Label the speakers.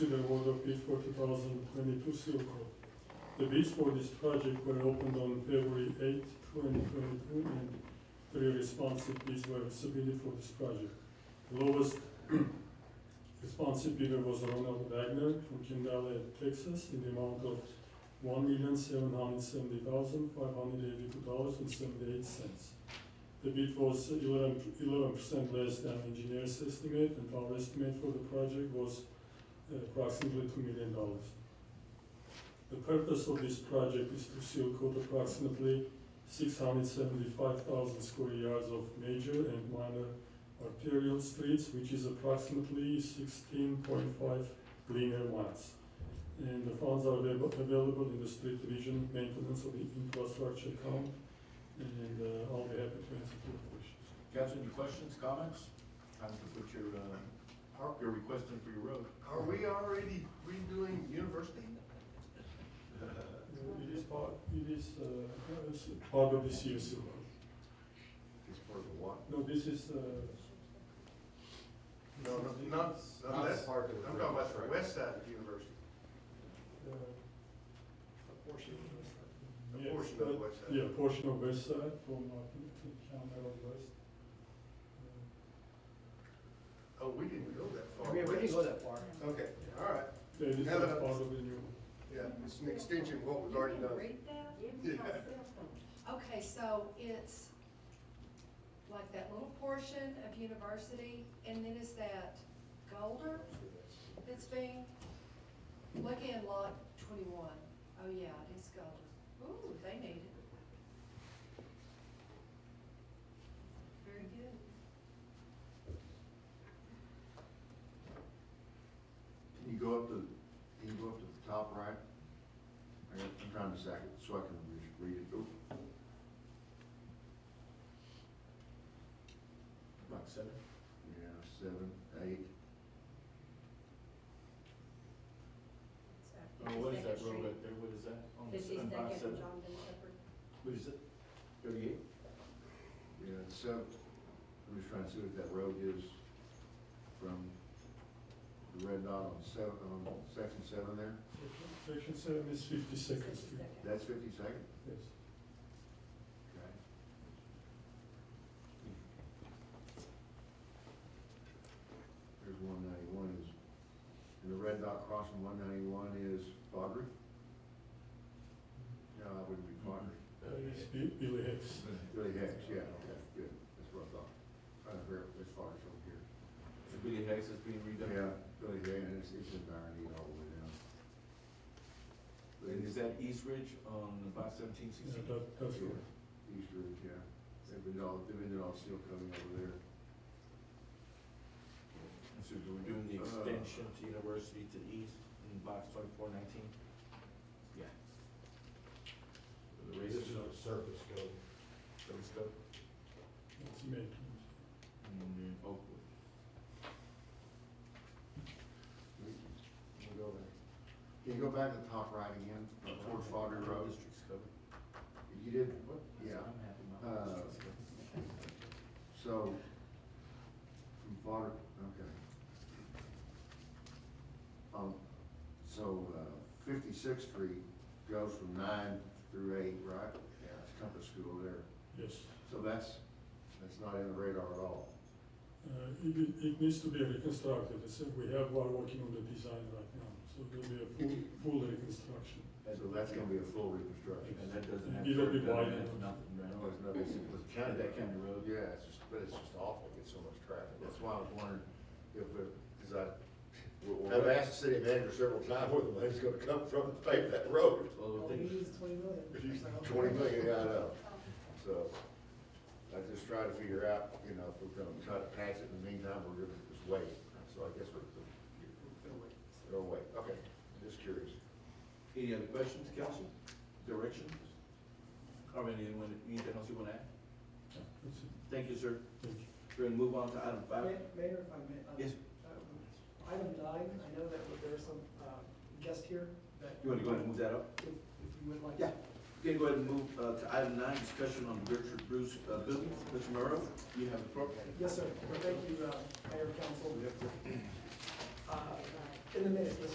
Speaker 1: the award of bid for 2022 Silco. The bids for this project were opened on February 8, 2022, and three responsive bids were submitted for this project. The lowest responsive bidder was Ronald Wagner from Kendall, Texas, in the amount of $1,770,582.78. The bid was eleven percent less than engineer's estimate, and our estimate for the project was uh, approximately two million dollars. The purpose of this project is to seal coat approximately six hundred seventy-five thousand square yards of major and minor arterial streets, which is approximately sixteen point five linear miles. And the funds are available- available in the street division maintenance of the infrastructure account, and uh, I'll be happy to answer your questions.
Speaker 2: Council, any questions, comments? Time to put your, uh, your request in for your road.
Speaker 3: Are we already redoing university?
Speaker 1: It is part, it is uh, it's part of the CSU.
Speaker 2: It's part of the what?
Speaker 1: No, this is. uh,
Speaker 3: No, no,
Speaker 1: this is-
Speaker 3: not, not that part,
Speaker 2: of the
Speaker 3: I'm talking about the west side of university, a
Speaker 1: uh, yes,
Speaker 3: portion of the
Speaker 1: but-
Speaker 3: west side.
Speaker 1: Yeah, portion of west side from uh, Campbell West. Uh,
Speaker 3: Oh, we didn't go that far
Speaker 4: Yeah, we didn't go
Speaker 3: west.
Speaker 4: that far.
Speaker 3: Okay, all right,
Speaker 1: Yeah, this is
Speaker 3: Now that-
Speaker 1: part of the new.
Speaker 3: yeah, it's an extension of what was already
Speaker 5: You can
Speaker 3: done.
Speaker 5: read that?
Speaker 3: Yeah.
Speaker 5: Okay, so it's like that little portion of university, and then is that Golder that's being, look in lot twenty-one. Oh, yeah, it is Golder. Ooh, they need it. Very good.
Speaker 2: Can you go up to, can you go up to the top right? I got- I'm trying to sack it so I can re- read it. Oh.
Speaker 4: About seven.
Speaker 2: Yeah, seven, eight.
Speaker 6: Oh, what is that road right there, what is that? On the
Speaker 2: Fifty
Speaker 6: seven five
Speaker 2: second
Speaker 6: seven.
Speaker 2: John
Speaker 6: Shepherd. What is it? Thirty-eight?
Speaker 2: Yeah, so, I'm just trying to see what that road is from the red dot on seven, on section seven there.
Speaker 1: Section- Section seven is fifty-second street,
Speaker 2: That's fifty-second?
Speaker 1: yes.
Speaker 2: Okay. There's one ninety-one is, and the red dot crossing one ninety-one is Fodry? No, that wouldn't be Fodry.
Speaker 1: Uh, It's Bi- Billy Hicks.
Speaker 2: Billy Hicks, yeah, okay, good, that's what I thought. Trying to figure out which Fodry's over here.
Speaker 6: The Billy Hicks is being redone.
Speaker 2: Yeah, Billy Hicks, and it's, it's in Barony all the way down.
Speaker 6: And is that East Ridge on about seventeen
Speaker 1: Yeah,
Speaker 6: sixteen?
Speaker 1: that- that's
Speaker 2: Yeah.
Speaker 1: right.
Speaker 2: East Ridge, yeah. They've been all, they've been doing all steel coming over there.
Speaker 6: So we're doing the extension to University to East in box twenty-four nineteen? Yeah. The race
Speaker 7: This is
Speaker 6: is
Speaker 7: a surface code.
Speaker 6: so it's go,
Speaker 1: It's made.
Speaker 6: and then Oakwood.
Speaker 2: We can go there. Can you go back to the top right again, towards Fogger Road?
Speaker 6: District's covered.
Speaker 2: You did, Yeah.
Speaker 6: I'm happy
Speaker 2: Uh,
Speaker 6: about district's covered.
Speaker 2: so, from Fogger, okay. Um, so, uh, Fifty-Sixth Street goes from nine through eight, right? Yeah. It's Compass School there.
Speaker 1: Yes.
Speaker 2: So that's, that's not in the radar at all.
Speaker 1: Uh, It, it- it needs to be reconstructed, it's, we have, we're working on the design right now, so it will be a full, full reconstruction.
Speaker 2: So that's gonna be a full reconstruction.
Speaker 6: And that doesn't have.
Speaker 1: It'll be
Speaker 6: curb cut,
Speaker 1: wide.
Speaker 6: that's Nothing, right?
Speaker 2: Oh, it's not- it's- it's
Speaker 6: County,
Speaker 2: county-
Speaker 6: that county road.
Speaker 2: Yeah, it's just, but it's just awful, to get so much traffic, that's why I was wondering if, because I, I've asked the city manager several times where the money's gonna come from to pave that road.
Speaker 6: Well, the
Speaker 4: We
Speaker 6: thing is-
Speaker 4: used twenty million.
Speaker 2: Twenty million, I know, so, I just try to figure out, you know, if we're gonna try to pass it, in the meantime, we're gonna just wait, so I guess we're, we'll wait, okay, just curious.
Speaker 6: Any other questions, council? Directions? Or anyone, anything else you want to add?
Speaker 1: That's it.
Speaker 6: Thank you, sir.
Speaker 1: Thank you.
Speaker 6: We're gonna move on to item five.
Speaker 4: Ma- Mayor, if I may. um,
Speaker 6: Yes.
Speaker 4: um, Item nine, I know that there's some um, guest here that.
Speaker 6: You wanna go ahead and move that up?
Speaker 4: If, if you would like.
Speaker 6: Yeah. Okay, go ahead and move uh, to item nine, discussion on Richard Bruce uh, building. Mr. Morrow, you have the floor.
Speaker 4: Yes, sir. Well, Thank you, uh, Mayor, Council. Uh, In a minute, Mr.